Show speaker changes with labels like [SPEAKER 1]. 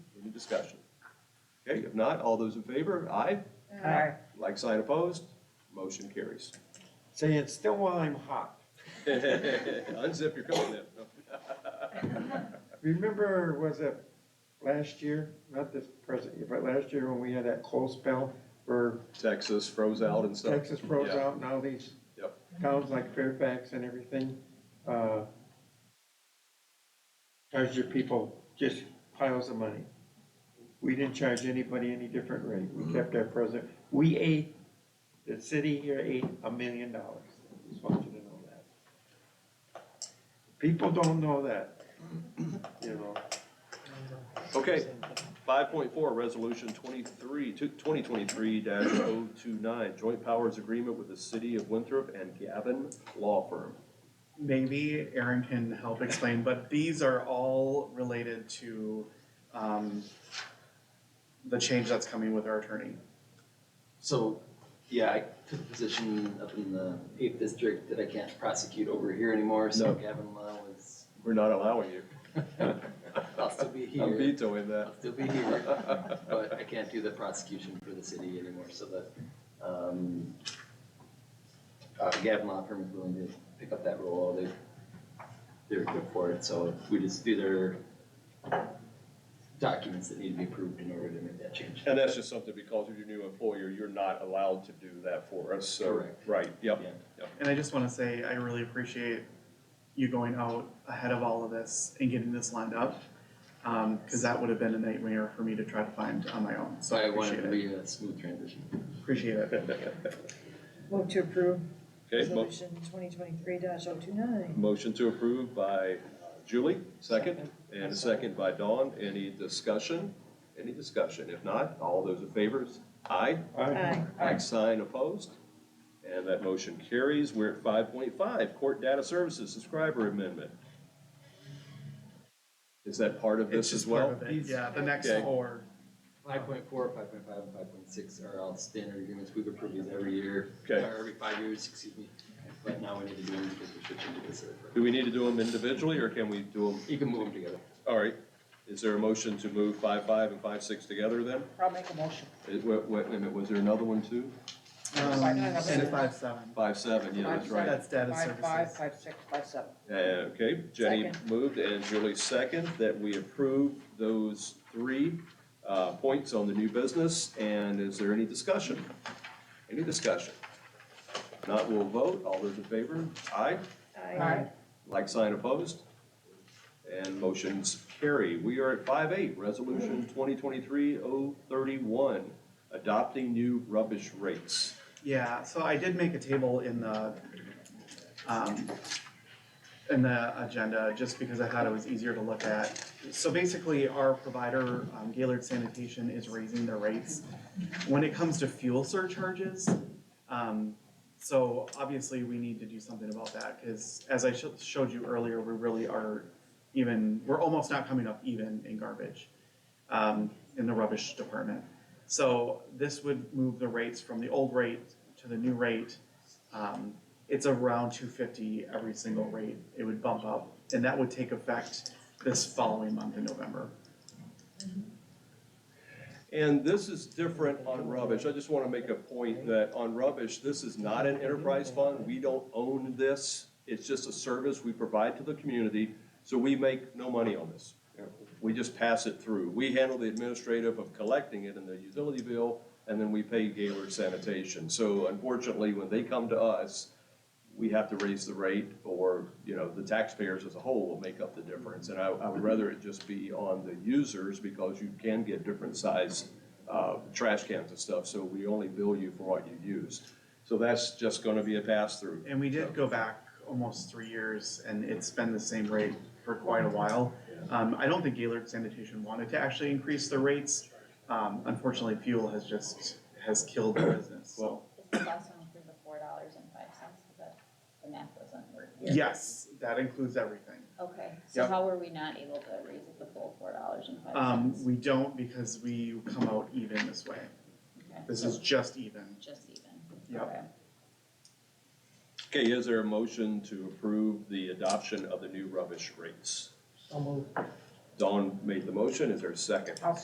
[SPEAKER 1] Any discussion? Okay, if not, all those in favor, aye.
[SPEAKER 2] Aye.
[SPEAKER 1] Like sign opposed, motion carries.
[SPEAKER 3] Say it still while I'm hot.
[SPEAKER 1] Unzip your coat then.
[SPEAKER 3] Remember, was it last year, not this present year, but last year when we had that cold spell where
[SPEAKER 1] Texas froze out and stuff.
[SPEAKER 3] Texas froze
[SPEAKER 1] Yeah.
[SPEAKER 3] out and all these
[SPEAKER 1] Yep.
[SPEAKER 3] towns like Fairfax and everything, uh, charged your people just piles of money. We didn't charge anybody any different rate. We kept our present, we ate, the city here ate a million dollars. Just want you to know that. People don't know that, you know.
[SPEAKER 1] Okay, five point four, resolution twenty-three, twenty twenty-three dash oh two nine, joint powers agreement with the city of Winthrop and Gavin Law Firm.
[SPEAKER 4] maybe Aaron can help explain, but these are all related to um, the change that's coming with our attorney.
[SPEAKER 5] So, yeah, I took a position up in the eighth district that I can't prosecute over here anymore, so
[SPEAKER 1] No.
[SPEAKER 5] Gavin Law was,
[SPEAKER 1] We're not allowing you.
[SPEAKER 5] I'll still be
[SPEAKER 1] I'm
[SPEAKER 5] here.
[SPEAKER 1] vetoing that.
[SPEAKER 5] I'll still be here, but I can't do the prosecution for the city anymore, so the, um, uh, Gavin Law Firm is willing to pick up that role, they, they're good for it, so we just do their documents that need to be approved in order to make that change.
[SPEAKER 1] And that's just something because of your new employer, you're not allowed to do that for us, so.
[SPEAKER 5] Correct.
[SPEAKER 1] Right, yep.
[SPEAKER 5] Yeah.
[SPEAKER 4] And I just want to say, I really appreciate you going out ahead of all of this and getting this lined up. Because that would have been a nightmare for me to try to find on my own, so
[SPEAKER 5] So
[SPEAKER 4] I
[SPEAKER 5] I wanted
[SPEAKER 4] appreciate it,
[SPEAKER 5] to be a smooth transition.
[SPEAKER 4] appreciate it.
[SPEAKER 2] Move to approve
[SPEAKER 1] Okay, mo-
[SPEAKER 2] resolution twenty twenty-three oh 29 oh-two-nine.
[SPEAKER 1] motion to approve by Julie, second, and a second by Dawn. Any discussion? Any discussion? If not, all those in favor, aye.
[SPEAKER 2] Aye.
[SPEAKER 1] Like sign opposed. And that motion carries. We're at five point five, Court Data Services Subscriber Amendment. Is that part of
[SPEAKER 4] It's
[SPEAKER 1] this as
[SPEAKER 4] just part
[SPEAKER 1] well?
[SPEAKER 4] of it, yeah, the next
[SPEAKER 1] Okay.
[SPEAKER 4] four.
[SPEAKER 5] Five point four, five point five, and five point six are all standard agreements, we've approved these every year, or
[SPEAKER 1] Okay.
[SPEAKER 5] every five years, excuse me. But now we need to do them because we should change this. over.
[SPEAKER 1] Do we need to do them individually or can we do them,
[SPEAKER 5] You can move them together.
[SPEAKER 1] all right? Is there a motion to move five five and five six together then?
[SPEAKER 2] I'll make a motion.
[SPEAKER 1] Is- wa- wa- Wait, a minute, was there another one too?
[SPEAKER 4] Um,
[SPEAKER 2] Five, nine,
[SPEAKER 4] And
[SPEAKER 2] seven.
[SPEAKER 4] five, seven,
[SPEAKER 1] Five seven, yeah, that's right.
[SPEAKER 4] that's data
[SPEAKER 2] Five, five,
[SPEAKER 4] services.
[SPEAKER 2] five, six, five, seven.
[SPEAKER 1] Uh, Okay, Jenny
[SPEAKER 2] Second.
[SPEAKER 1] moved and Julie second that we approve those three uh, points on the new business. And is there any discussion? Any discussion? If Not, we'll vote. All those in favor? Aye.
[SPEAKER 2] Aye.
[SPEAKER 1] Like sign opposed? And motions carry. We are at five eight, resolution 2023-031, adopting new rubbish rates.
[SPEAKER 4] Yeah, so I did make a table in the, um, in the agenda, just because I thought it was easier to look at. So basically, our provider, um, Gaylord Sanitation, is raising their rates. When it comes to fuel surcharges, um, so obviously, we need to do something about that, because as I sho- showed you earlier, we really are even, we're almost not coming up even in garbage, um, in the rubbish department. So this would move the rates from the old rate to the new rate. Um, it's around two fifty every single rate. It would bump up, and that would take effect this following month in November.
[SPEAKER 1] And this is different on rubbish. I just want to make a point that on rubbish, this is not an enterprise fund. We don't own this. It's just a service we provide to the community, so we make no money on this. We just pass it through. We handle the administrative of collecting it in the utility bill, and then we pay Gaylord Sanitation. So unfortunately, when they come to us, we have to raise the rate, or, you know, the taxpayers as a whole will make up the difference. And I, I would rather it just be on the users, because you can get different size, uh, trash cans and stuff, so we only bill you for what you used. So that's just gonna be a pass-through.
[SPEAKER 4] And we did go back almost three years, and it's been the same rate for quite a while. Um, I don't think Gaylord Sanitation wanted to actually increase the rates. Um, unfortunately, fuel has just, has killed the business, so.
[SPEAKER 6] This is also include the four dollars and five cents, because the math doesn't work here.
[SPEAKER 4] Yes, that includes everything.
[SPEAKER 6] Okay, so
[SPEAKER 4] Yep.
[SPEAKER 6] how were we not able to raise it the full four dollars and five
[SPEAKER 4] Um,
[SPEAKER 6] cents?
[SPEAKER 4] we don't because we come out even this way.
[SPEAKER 6] Okay,
[SPEAKER 4] This is just even.
[SPEAKER 6] Just even,
[SPEAKER 4] Yep.
[SPEAKER 6] okay.
[SPEAKER 1] Okay, is there a motion to approve the adoption of the new rubbish rates?
[SPEAKER 2] So moved.
[SPEAKER 1] Dawn made the motion, is there a second?
[SPEAKER 2] I'll